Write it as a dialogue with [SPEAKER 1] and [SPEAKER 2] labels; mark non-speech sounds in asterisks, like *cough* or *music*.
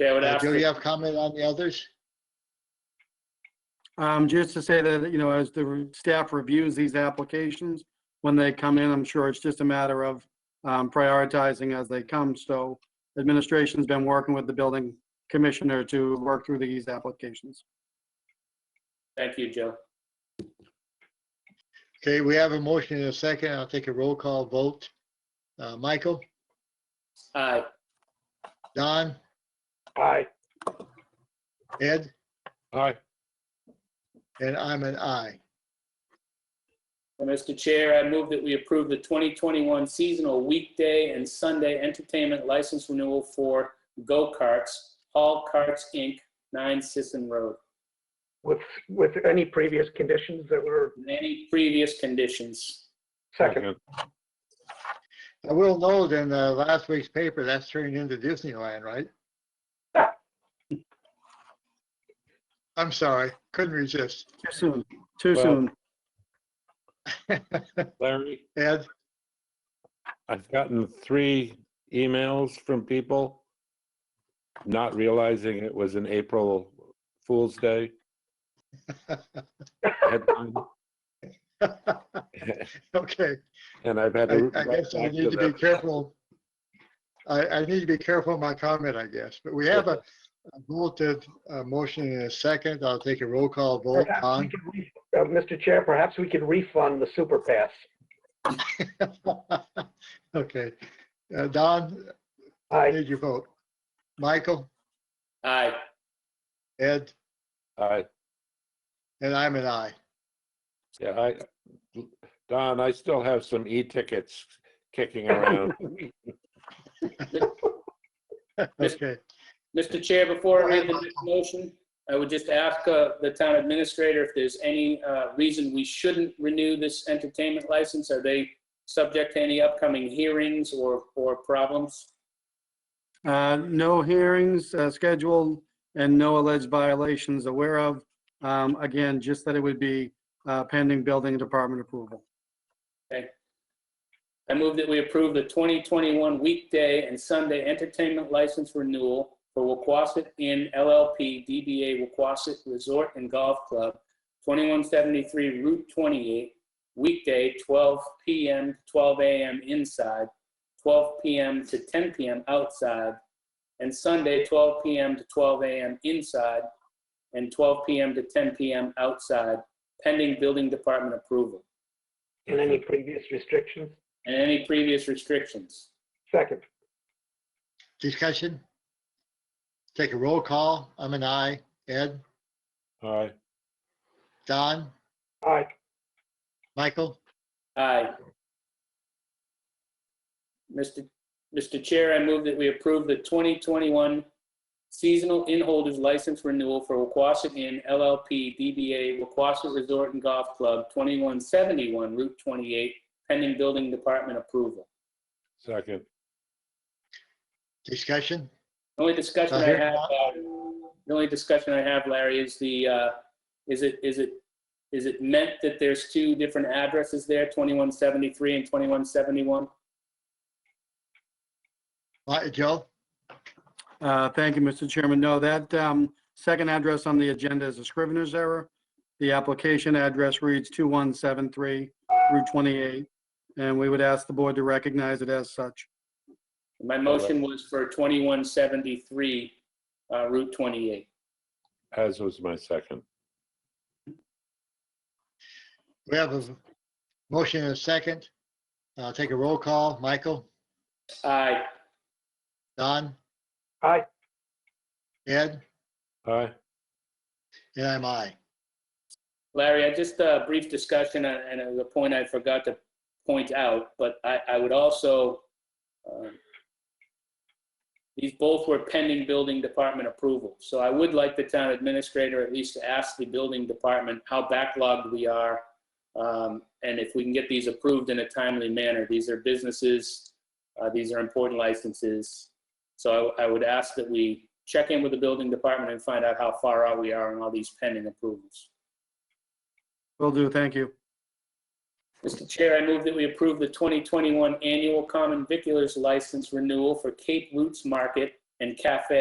[SPEAKER 1] Okay, I would
[SPEAKER 2] Uh,
[SPEAKER 1] ask,
[SPEAKER 2] Joe,
[SPEAKER 1] that-
[SPEAKER 2] you have comment on the others?
[SPEAKER 3] Um, just to say that, you know, as the re- staff reviews these applications, when they come in, I'm sure it's just a matter of um, prioritizing as they come. So administration's been working with the building commissioner to work through these applications.
[SPEAKER 1] thank you, Joe.
[SPEAKER 2] Okay, we have a motion and a second. I'll take a roll call vote. Uh, Michael,
[SPEAKER 1] Aye,
[SPEAKER 2] Don,
[SPEAKER 4] Aye.
[SPEAKER 2] Ed,
[SPEAKER 4] Aye.
[SPEAKER 2] and I'm an I.
[SPEAKER 1] And Mr. Chair, I move that we approve the 2021 seasonal weekday and Sunday entertainment license renewal for go-karts, Hall Carts, Inc., 9 Sisson Road.
[SPEAKER 4] With, with any previous conditions that were
[SPEAKER 1] Any previous conditions?
[SPEAKER 4] second.
[SPEAKER 2] I will note in uh, last week's paper, that's turned into Disneyland, right? I'm sorry, couldn't resist.
[SPEAKER 3] Too soon, too
[SPEAKER 5] Well-
[SPEAKER 3] soon.
[SPEAKER 5] Larry,
[SPEAKER 2] Ed, *laughs*
[SPEAKER 5] I've gotten three emails from people not realizing it was an April Fool's Day. headline, *laughs*
[SPEAKER 2] okay,
[SPEAKER 5] And I've had
[SPEAKER 2] I
[SPEAKER 5] to.
[SPEAKER 2] I
[SPEAKER 5] write
[SPEAKER 2] guess I
[SPEAKER 5] back
[SPEAKER 2] need to be
[SPEAKER 5] them.
[SPEAKER 2] careful. I, I need to be careful in my comment, I guess, but we have a a voted uh, motion in a second. I'll take a roll call vote
[SPEAKER 4] Perhaps we
[SPEAKER 2] on.
[SPEAKER 4] could re- uh, Mr. Chair, perhaps we could refund the super pass.
[SPEAKER 2] *laughs* Okay, Uh, Don, I
[SPEAKER 4] Aye.
[SPEAKER 2] need your vote. Michael,
[SPEAKER 1] Aye.
[SPEAKER 2] Ed,
[SPEAKER 5] I,
[SPEAKER 2] and I'm an I.
[SPEAKER 5] yeah, I, Don, I still have some e-tickets kicking
[SPEAKER 2] *laughs*
[SPEAKER 5] around.
[SPEAKER 2] Okay,
[SPEAKER 1] Mr. Chair, before I read the next motion, I would just ask uh, the town administrator if there's any uh, reason we shouldn't renew this entertainment license. Are they subject to any upcoming hearings or, or problems?
[SPEAKER 3] Uh, No hearings uh, scheduled and no alleged violations aware of. Um, Again, just that it would be uh, pending building department approval.
[SPEAKER 1] I move that we approve the 2021 weekday and Sunday entertainment license renewal for Waquasit Inn LLP DBA Waquasit Resort and Golf Club, 2173 Route 28, weekday 12 PM, to 12 AM inside, 12 PM to 10 PM outside, and Sunday 12 PM to 12 AM inside, and 12 PM to 10 PM outside, pending building department approval,
[SPEAKER 4] And any previous restrictions?
[SPEAKER 1] and any previous restrictions.
[SPEAKER 4] Second.
[SPEAKER 2] discussion? Take a roll call. I'm an I. Ed,
[SPEAKER 5] Aye.
[SPEAKER 2] Don,
[SPEAKER 4] Aye.
[SPEAKER 2] Michael,
[SPEAKER 1] Aye. Mr. Mr. Chair, I move that we approve the 2021 seasonal inn holders license renewal for Waquasit Inn LLP DBA Waquasit Resort and Golf Club, 2171 Route 28, pending building department approval.
[SPEAKER 5] second.
[SPEAKER 2] discussion?
[SPEAKER 1] The only discussion
[SPEAKER 2] Uh,
[SPEAKER 1] I
[SPEAKER 2] here-
[SPEAKER 1] have, uh, the only discussion I have, Larry, is the, uh, is it, is it, is it meant that there's two different addresses there, 2173 and 2171?
[SPEAKER 2] Mi- Joe,
[SPEAKER 3] Uh, Thank you, Mr. Chairman. No, that um, second address on the agenda is a scrivener's error. The application address reads 2173 Route 28, and we would ask the board to recognize it as such.
[SPEAKER 1] My motion was for 2173 uh, Route 28.
[SPEAKER 5] As was my second.
[SPEAKER 2] we have a motion and a second. I'll take a roll call. Michael,
[SPEAKER 1] Aye.
[SPEAKER 2] Don,
[SPEAKER 4] Aye.
[SPEAKER 2] Ed,
[SPEAKER 5] Aye.
[SPEAKER 2] and I'm I.
[SPEAKER 1] Larry, I just a brief discussion uh, and it was a point I forgot to point out, but I, I would also, um, these both were pending building department approval. So I would like the town administrator at least to ask the building department how backlogged we are. um, And if we can get these approved in a timely manner, these are businesses, uh, these are important licenses. So I I would ask that we check in with the building department and find out how far out we are on all these pending approvals.
[SPEAKER 3] Will do, thank you.
[SPEAKER 1] Mr. Chair, I move that we approve the 2021 annual common viculars license renewal for Cape Roots Market and Cafe